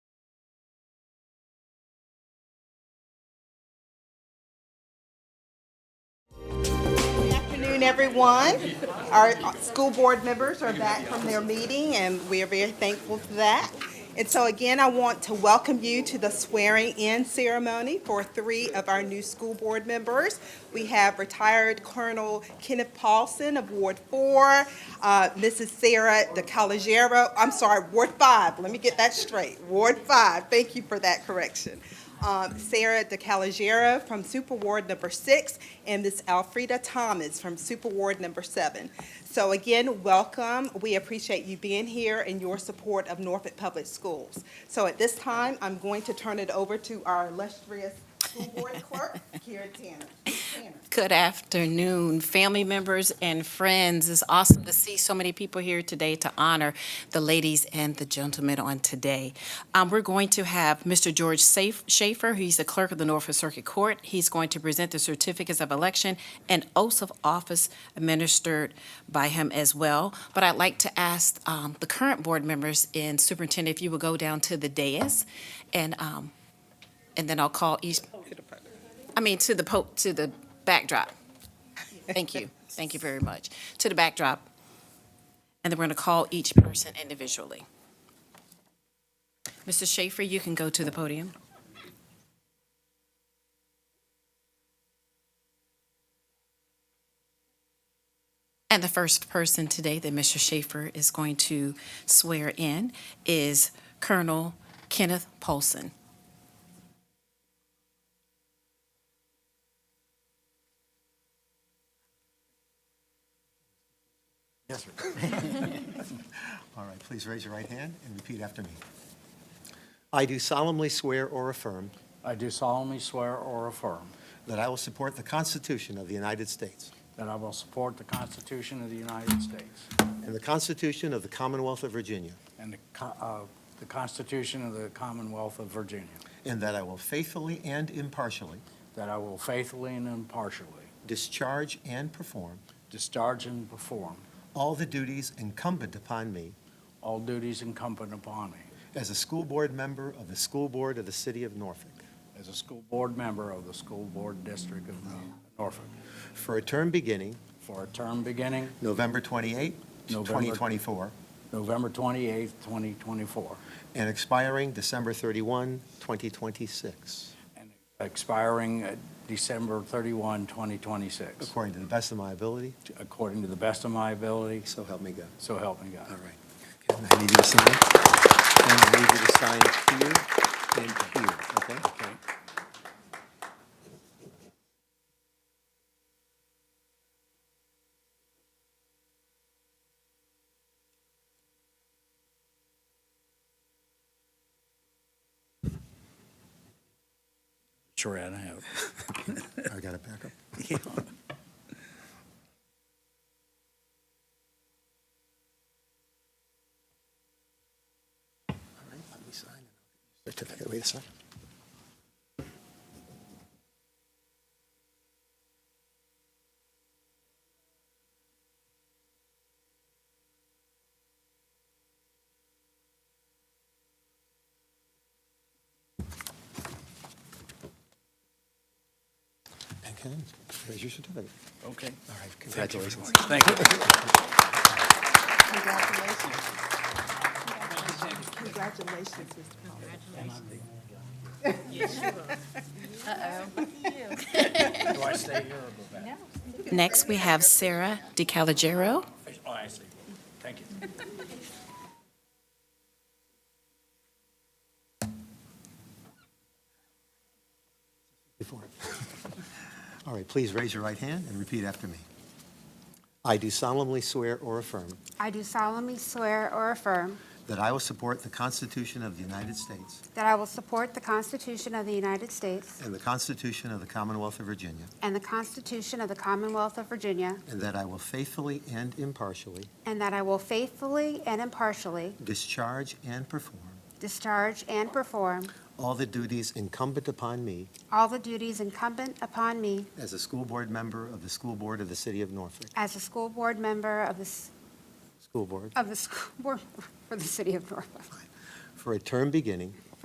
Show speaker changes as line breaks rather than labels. afternoon, everyone. Our school board members are back from their meeting, and we are very thankful for that. And so again, I want to welcome you to the swearing-in ceremony for three of our new school board members. We have retired Colonel Kenneth Paulson of Ward Four, uh, Mrs. Sarah DeCalagero, I'm sorry, Ward Five, let me get that straight, Ward Five, thank you for that correction um, Sarah DeCalagera from Super Ward Number Six, and Miss Alfreda Thomas from Super Ward Number Seven. So again, welcome. We appreciate you being here and your support of Norfolk Public Schools. So at this time, I'm going to turn it over to our illustrious school board clerk, Karen Tanner. Tanner.
Good afternoon, family members and friends. It's awesome to see so many people here today to honor the ladies and the gentlemen on today. Um, we're going to have Mr. George Saf- Schaefer, he's the clerk of the Norfolk Circuit Court. He's going to present the certificates of election and oaths of office administered by him as well. But I'd like to ask um, the current board members and superintendent if you would go down to the dais and, um, and then I'll call each, I mean, to the po, to the backdrop. Thank you. Thank you very much. To the backdrop. And then we're going to call each person individually. Mr. Schaefer, you can go to the podium. And the first person today that Mr. Schaefer is going to swear in is Colonel Kenneth Paulson.
Yes, sir. All right, please raise your right hand and repeat after me. I do solemnly swear or affirm
I do solemnly swear or affirm
that I will support the Constitution of the United States
that I will support the Constitution of the United States
and the Constitution of the Commonwealth of Virginia,
and the co- uh, the Constitution of the Commonwealth of Virginia,
and that I will faithfully and impartially
that I will faithfully and impartially
discharge and perform
discharge and perform
all the duties incumbent upon me
all duties incumbent upon me
as a school board member of the School Board of the City of Norfolk
as a school board member of the School Board District of Norfolk
for a term beginning
for a term beginning
November 28,
November-
2024,
November 28, 2024,
and expiring December 31, 2026,
expiring uh, December 31, 2026,
according to the best of my ability.
according to the best of my ability,
So help me God.
so help me God.
All right. And I need you to sign. And I need you to sign here and here, okay?
Okay. Sure, I have.
I got it back up. All right, let me sign. Certificate, wait a second. Okay, there's your certificate.
Okay.
All right, congratulations.
Thank you.
Congratulations. Congratulations, Mr. Paulson.
Do I stay here or go back?
Next, we have Sarah DeCalagero.
Oh, I see. Thank you.
Before. All right, please raise your right hand and repeat after me. I do solemnly swear or affirm
I do solemnly swear or affirm
that I will support the Constitution of the United States
that I will support the Constitution of the United States
and the Constitution of the Commonwealth of Virginia,
and the Constitution of the Commonwealth of Virginia,
and that I will faithfully and impartially
and that I will faithfully and impartially
discharge and perform
discharge and perform
all the duties incumbent upon me
all the duties incumbent upon me
as a school board member of the School Board of the City of Norfolk,
as a school board member of the, s-
School Board,
of the school board for the city of Norfolk,
for a term beginning